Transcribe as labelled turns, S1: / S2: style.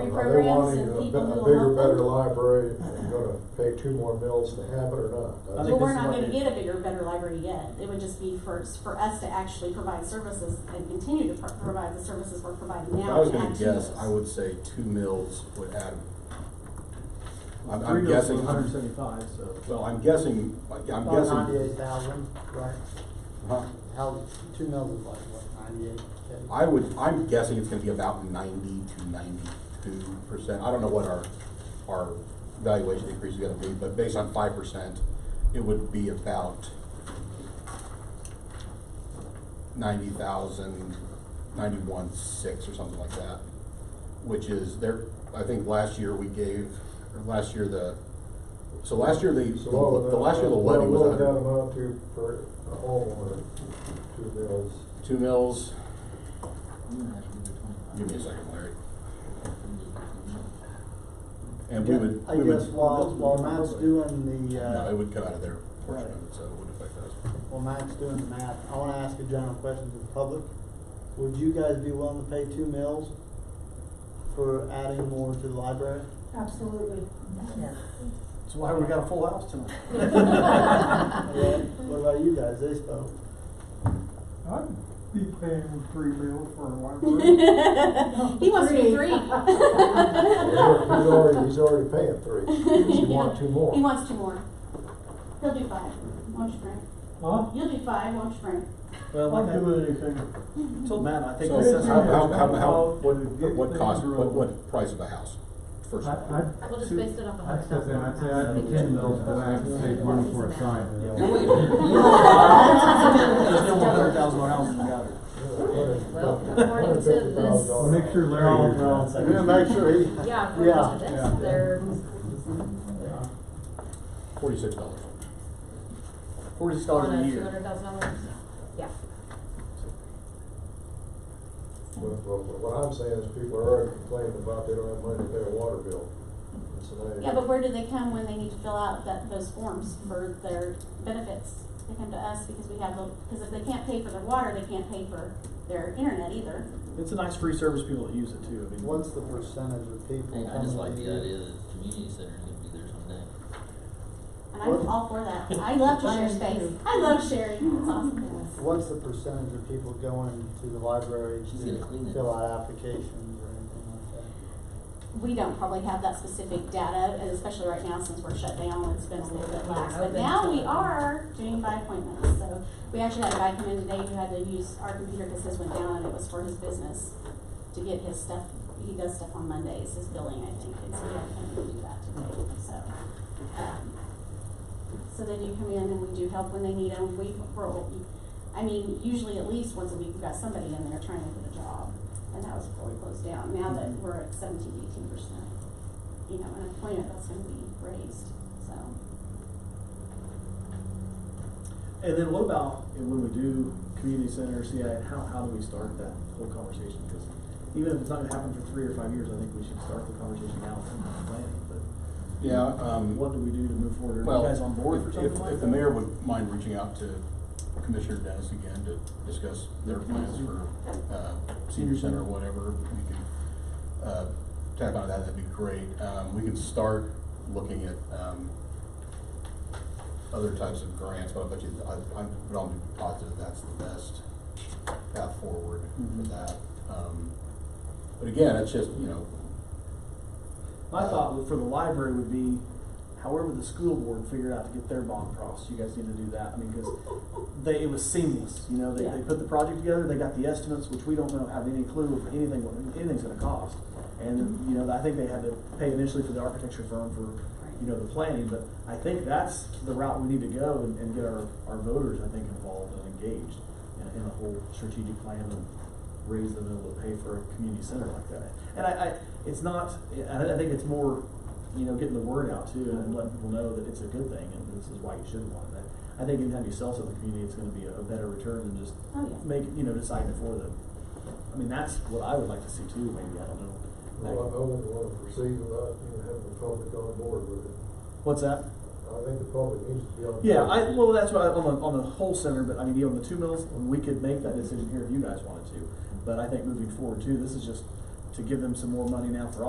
S1: Are they
S2: programs
S1: wanting
S2: and
S1: a,
S2: people
S1: be- a
S2: who
S1: bigger,
S2: will
S1: better
S2: help them.
S1: library, and you gonna pay two more mills to have it or not?
S3: I
S2: But
S3: think
S2: we're
S3: this is
S2: not
S3: what
S2: gonna
S3: it-
S2: get a bigger, better library yet, it would just be for, s- for us to actually provide services and continue to pro- provide the services we're providing
S4: If
S2: now.
S4: I was
S2: and
S4: gonna
S2: add to
S4: guess,
S2: those.
S4: I would say two mills would add. I'm,
S3: Three goes
S4: I'm
S3: to
S4: guessing,
S3: hundred and Oh, seventy-five, so.
S4: well, I'm guessing, I'm
S5: About ninety-eight
S4: guessing.
S5: thousand, right?
S4: Huh?
S5: How, two mills is like, what, ninety-eight?
S4: I would, I'm guessing it's gonna be about ninety to ninety-two percent. I don't know what our, our valuation increase is gonna be, but based on five percent, it would be about ninety thousand, ninety-one six or something like that, which is there, I think last year we gave, or last year the, so last year the, the
S1: So what would
S4: the last year the
S1: that-
S4: levy was
S1: What
S4: a
S1: would that
S4: hundred,
S1: amount to for a homeowner, two mills?
S4: two mills. Give me a second, Larry. And we would,
S5: I
S4: we would.
S5: guess while, while Matt's doing the,
S4: No,
S5: uh,
S4: it would come out of their portion of it, so it wouldn't affect us.
S5: while Matt's doing the math, I wanna ask a general question to the public. Would you guys be willing to pay two mills for adding more to the library?
S6: Absolutely.
S3: That's why we got a full house tonight.
S5: Well, What about you guys, they spoke?
S7: I'd be paying three mil for a library.
S2: He wants to be three.
S1: Well, He's already, he's already paying three, does he want two more?
S2: He wants two more. He'll do five, won't you, Frank?
S7: Huh?
S2: You'll do five, won't you, Frank?
S3: Well, like
S7: I'll
S3: I
S7: do anything.
S3: told Matt, I think
S4: So
S3: this is.
S4: how,
S7: how-
S4: how, how,
S7: how-
S4: what, what cost, what, what price of a house, first
S8: I,
S4: of all?
S8: I,
S6: We'll just base it off a
S8: I'd
S6: hundred
S8: step in,
S6: thousand.
S8: I'd say I'd be ten mils, but I have to save money for a sign.
S3: There's no more hundred thousand more houses in Goddard.
S6: Well, according to this-
S8: Well, Make sure Larry, well,
S5: We're gonna make sure he.
S6: Yeah, for
S5: Yeah,
S6: most of
S5: yeah.
S6: this, there's
S4: Forty-six dollars.
S3: Forty
S6: on
S3: dollars a
S6: a two
S3: year.
S6: hundred thousand dollars, yeah.
S1: Well, well, What I'm saying is people are already complaining about they don't have money to pay a water bill. So they-
S2: Yeah, but where do they come when they need to fill out that, those forms for their benefits? They come to us because we have the, because if they can't pay for their water, they can't pay for their internet either.
S3: It's a nice free service, people that use it too, I mean.
S5: What's the percentage of people coming
S9: Hey, I just like
S5: to
S9: the
S5: you?
S9: idea that the community center is gonna be there someday.
S2: And I'm all for that. I love to share space. I love sharing. It's awesome.
S5: What's the percentage of people going to the library
S9: She's gonna clean
S5: to
S9: it.
S5: fill out applications or anything like that?
S2: We don't probably have that specific data, and especially right now since we're shut down, it's been a little bit lax. But now we are doing by appointment, so we actually had a guy come in today who had to use our computer because his went down and it was for his business to get his stuff, he does stuff on Mondays, his billing, I think, and so we had to come in and do that today, so. um, So they do come in and we do help when they need them. We, we're, I mean, usually at least once a week, we've got somebody in there trying to get a job. And that was before we closed down. Now that we're at seventeen, eighteen percent, you know, an employment that's gonna be raised, so.
S3: And then what about, and when we do community center, CI, how, how do we start that whole conversation? Because even if it's not gonna happen for three or five years, I think we should start the conversation now and plan it, but
S4: Yeah, um.
S3: what do we do to move forward? Are
S4: Well,
S3: you guys on board for
S4: if-
S3: something
S4: if-
S3: like
S4: If the
S3: that?
S4: mayor would mind reaching out to Commissioner Dennis again to discuss their plans for, uh, senior center or whatever, we can, uh, tap on that, that'd be great. Um, we can start looking at, um, other types of grants, but I bet you, I, I would almost be positive that's the best path forward for
S3: Mhm.
S4: that. Um, But again, it's just, you know,
S3: My thought would- for the library would be, however the school board figured out to get their bond across, you guys need to do that, I mean, because they, it was seamless, you know, they, they
S2: Yeah.
S3: put the project together, they got the estimates, which we don't know, have any clue of anything, what anything's gonna cost.
S4: Mm-hmm.
S3: And, you know, I think they had to pay initially for the architecture firm for, you know, the planning, but I think that's the route we need to go and, and get our, our voters, I think, involved and engaged in, in the whole strategic plan and raise the mill to pay for a community center like that. And I, I, it's not, I, I think it's more, you know, getting the word out too and letting people know that it's a good thing and this is why you should want it. I think anytime you sell something to the community, it's gonna be a, a better return than just
S2: Oh, yeah.
S3: make, you know, deciding it for them. I mean, that's what I would like to see too, maybe, I don't know.
S1: Well, I wouldn't wanna proceed without even having the public on board with it.
S3: What's that?
S1: I think the public needs to be on board.
S3: Yeah, I, well, that's what, I- on the, on the whole center, but I mean, you know, on the two mills, we could make that decision here if you guys wanted to. But I think moving forward too, this is just to give them some more money now for